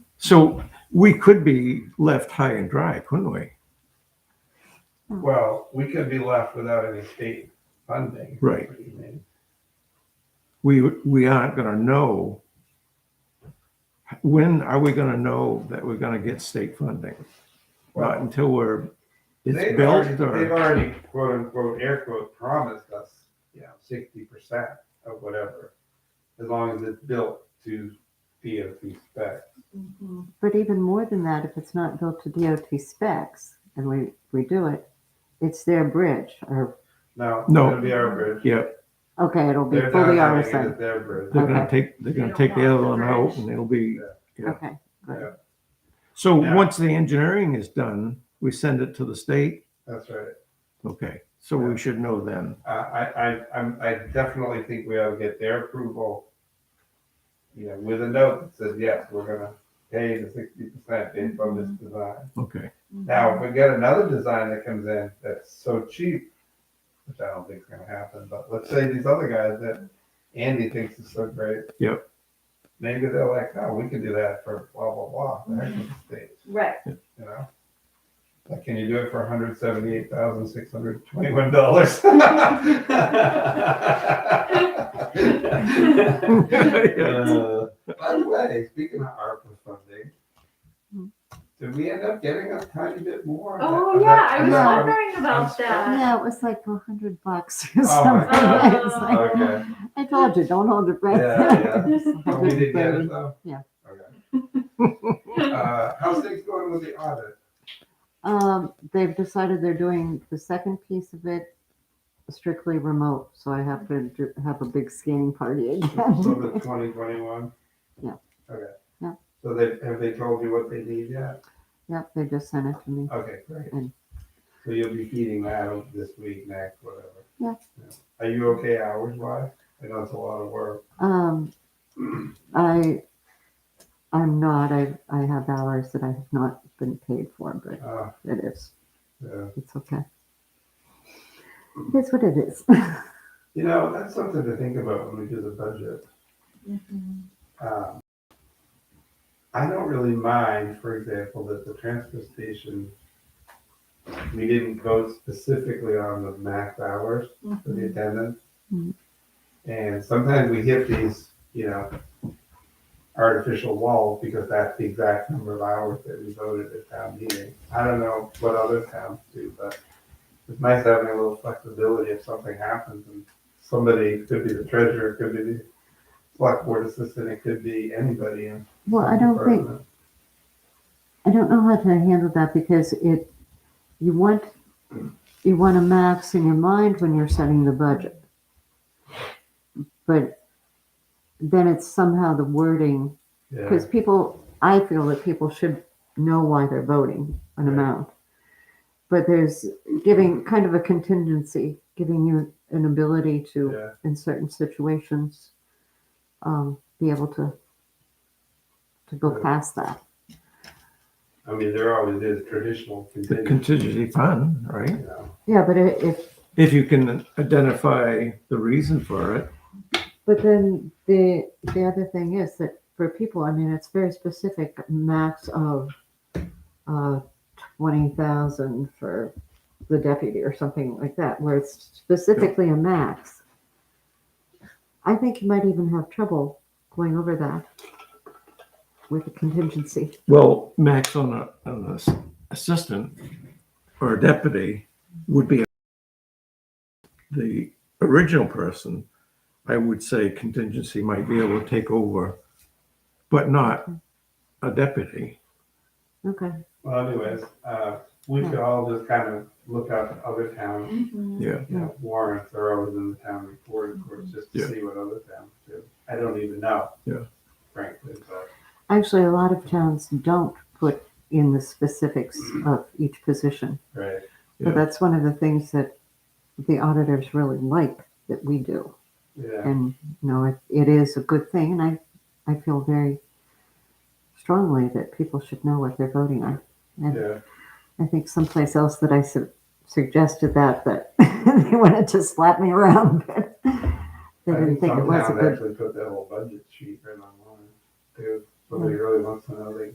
So we could be left high and dry, couldn't we? Hmm. Well, we could be left without any state funding. Right. What do you mean? We, we aren't gonna know. When are we gonna know that we're gonna get state funding? Not Well, until we're, it's they've built already, they've or, already quote unquote, air quote, promised us, you know, sixty percent of whatever. As long as it's built to DOT spec. But even more than that, if it's not built to DOT specs and we, we do it, it's their bridge or, No, No. it'll be our bridge. yeah, okay, it'll be They're not fully having it RSA. as Their bridge. they're gonna Okay. take, they're gonna don't take the want other the one out bridge. and it'll be, Yeah. Okay, good. so Yeah. once the engineering is done, we send it to the state? That's right. Okay, so Yeah. we should know then. I, I, I, I'm- I definitely think we ought to get their approval. You know, with a note that says, yes, we're gonna pay the sixty percent based on this design. Okay, Now, if we get another design that comes in that's so cheap, which I don't think is gonna happen, but let's say these other guys that Andy thinks is so great. Yep. Maybe they're like, no, we can do that for blah, blah, blah, the heck with the state, Right. you know? Like, can you do it for hundred seventy-eight thousand, six hundred twenty-one dollars? Uh, By the way, speaking of ARPA funding, Hmm. did we end up getting a tiny bit more? Oh, yeah, I was No. wondering about that. Yeah, it was like a hundred bucks or Oh, my something. God. It's like, Okay, I told you, don't hold your breath. Yeah, It's Oh, we did get it 130. though? Yeah. Okay. Uh, how's things going with the audit? Um, they've decided they're doing the second piece of it strictly remote, so I have to do, have a big scanning party So again. the twenty twenty-one? Yeah. Okay. Yeah. So they, have they told you what they need yet? Yep, they just sent it to me. Okay, great. Mm. So you'll be feeding that out this week, next, whatever. Yeah. Are you okay hours wise? I know it's a lot of work. Um, I, I'm not, I, I have hours that I have not been paid for, but Uh, it is, yeah. it's okay. It's what it is. You know, that's something to think about when we do the budget. Um, I don't really mind, for example, that the transfer station, we didn't vote specifically on the max hours for the attendance. Mhm. And sometimes we hit these, you know, artificial walls because that's the exact number of hours that we voted at town meeting. I don't know what other towns do, but it's nice having a little flexibility if something happens and somebody, it could be the treasurer, it could be the select board assistant, it could be anybody in. Well, I some don't think, department. I don't know how to handle that because it, you want, you want a max in your mind when you're setting the budget. But then it's somehow the wording, because Yeah, people, I feel that people should know why they're voting an Right. amount. But there's giving kind of a contingency, giving you an ability to, yeah, in certain situations, um, be able to, to go Yeah. past that. I mean, there always is traditional the contingency, contingency fund, right? you know. Yeah, but i- if, If you can identify the reason for it, but then the, the other thing is that for people, I mean, it's very specific, max of, uh, twenty thousand for the deputy or something like that, where it's specifically a max. I think you might even have trouble going over that with a contingency. well, max on a, on a s- assistant or a deputy would be the original person, I would say contingency might be able to take over, but not a deputy. Okay, Well, anyways, uh, Hmm. we could all just kind of look up other towns, Yeah, you Hmm. know, warrants are always in the town report, of course, just to Yeah. see what other towns do. I don't even know. Yeah. Frankly, but. actually, a lot of towns don't put in the specifics of each position. Right. Yeah. But that's one of the things that the auditors really like that we do. Yeah. And, you know, it, it is a good thing. And I, I feel very strongly that people should know what they're voting on. And Yeah. I think someplace else that I su- suggested that, that they wanted to slap me around. But they I didn't think it some was a towns good Hmm. Actually put that whole budget sheet right online. Too. Somebody really wants to know, they